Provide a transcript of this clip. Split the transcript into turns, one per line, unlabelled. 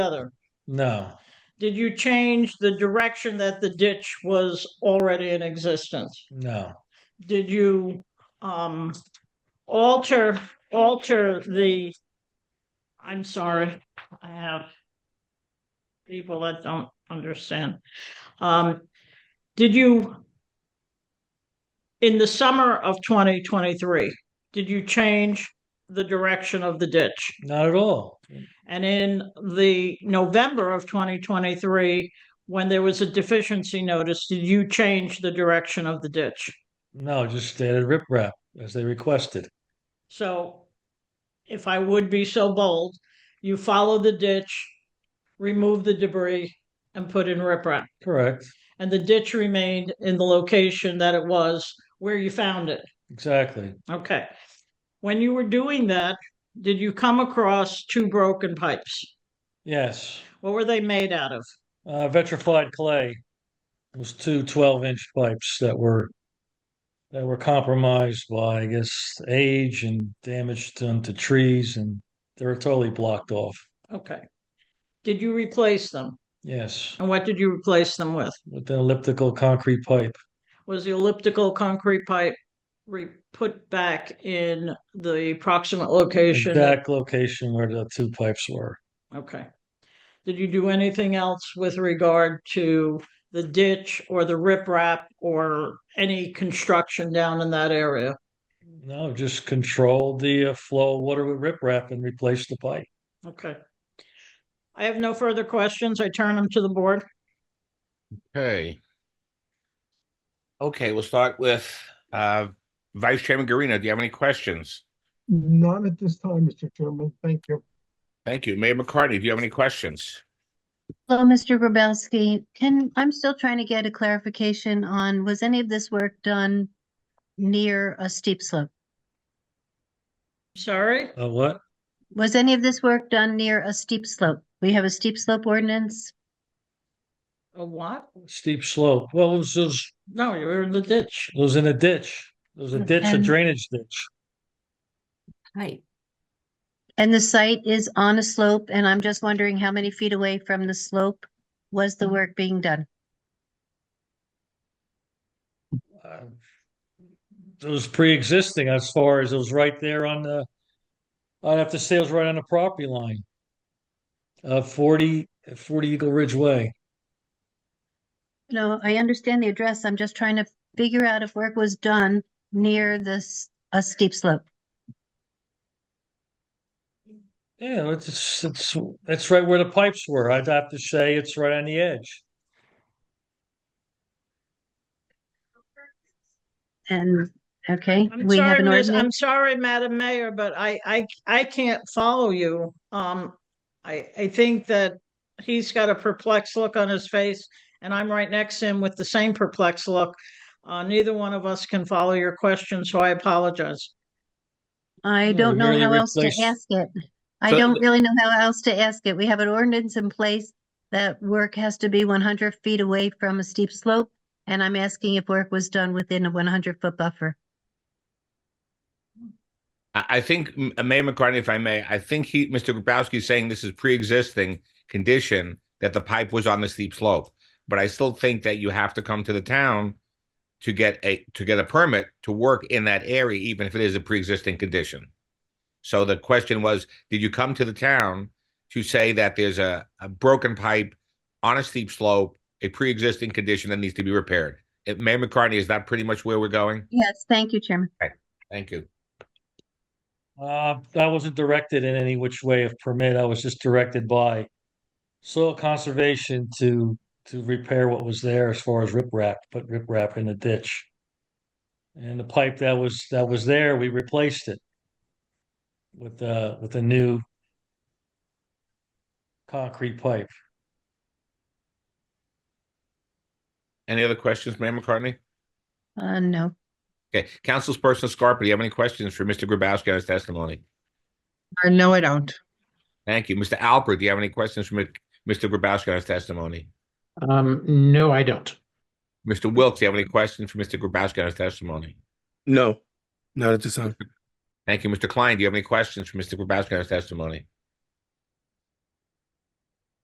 other?
No,
Did you change the direction that the ditch was already in existence?
no,
Did you um alter, alter the, I'm sorry, I have people that don't understand. Um, did you in the summer of 2023, did you change the direction of the ditch?
not at all.
And in the November of 2023, when there was a deficiency notice, did you change the direction of the ditch?
No, just standard riprap as they requested.
So if I would be so bold, you follow the ditch, remove the debris and put in riprap.
Correct,
And the ditch remained in the location that it was where you found it.
exactly.
Okay. When you were doing that, did you come across two broken pipes?
Yes,
What were they made out of?
uh, vitrified clay was two 12 inch pipes that were that were compromised by, I guess, age and damage done to trees, and they were totally blocked off.
Okay. Did you replace them?
Yes,
And what did you replace them with?
with an elliptical concrete pipe.
Was the elliptical concrete pipe re, put back in the proximate location?
Exact location where the two pipes were.
Okay. Did you do anything else with regard to the ditch or the riprap or any construction down in that area?
No, just control the uh, flow of water with riprap and replace the pipe.
Okay. I have no further questions. I turn them to the board.
Okay. Okay, we'll start with uh Vice Chairman Garina. Do you have any questions?
None at this time, Mr. Chairman. Thank you.
Thank you. Mayor McCartney, do you have any questions?
Hello, Mr. Grabowski. Can, I'm still trying to get a clarification on, was any of this work done near a steep slope?
Sorry?
Uh, what?
Was any of this work done near a steep slope? We have a steep slope ordinance.
A what?
Steep slope. Well, it was, it was,
No, you were in the ditch.
it was in a ditch. It was a ditch, a
And-
drainage ditch.
Right. And the site is on a slope, and I'm just wondering how many feet away from the slope was the work being done?
Uh, It was pre-existing as far as it was right there on the, I'd have to say it was right on the property line. Uh, 40 40 Eagle Ridge Way.
No, I understand the address. I'm just trying to figure out if work was done near this, a steep slope.
Yeah, it's- it's, it's, it's right where the pipes were. I'd have to say it's right on the edge.
And, okay,
I'm
we have
sorry,
an
miss,
ordinance.
I'm sorry, Madam Mayor, but I, I, I can't follow you. Um, I, I think that he's got a perplexed look on his face and I'm right next to him with the same perplexed look. Uh, neither one of us can follow your question, so I apologize.
I
No,
don't know
merely
how else to
replace-
ask it. I
So-
don't really know how else to ask it. We have an ordinance in place that work has to be one hundred feet away from a steep slope. And I'm asking if work was done within a one hundred foot buffer.
I, I think M- uh, Mayor McCartney, if I may, I think he, Mr. Grabowski is saying this is pre-existing condition that the pipe was on the steep slope. But I still think that you have to come to the town to get a, to get a permit to work in that area, even if it is a pre-existing condition. So the question was, did you come to the town to say that there's a, a broken pipe on a steep slope, a pre-existing condition that needs to be repaired? Eh, Mayor McCartney, is that pretty much where we're going?
Yes, thank you, Chairman.
Thank you.
Uh, I wasn't directed in any which way of permit. I was just directed by soil conservation to, to repair what was there as far as riprap, put riprap in the ditch. And the pipe that was, that was there, we replaced it with, uh, with a new concrete pipe.
Any other questions, Mayor McCartney?
Uh, no,
Okay, Councilperson Scarpa, do you have any questions for Mr. Grabowski on his testimony?
Uh, No, I don't.
Thank you. Mr. Alpert, do you have any questions for Mr. Grabowski on his testimony?
Um, no, I don't.
Mr. Wilks, do you have any questions for Mr. Grabowski on his testimony?
No, not at this time.
Thank you. Mr. Klein, do you have any questions for Mr. Grabowski on his testimony?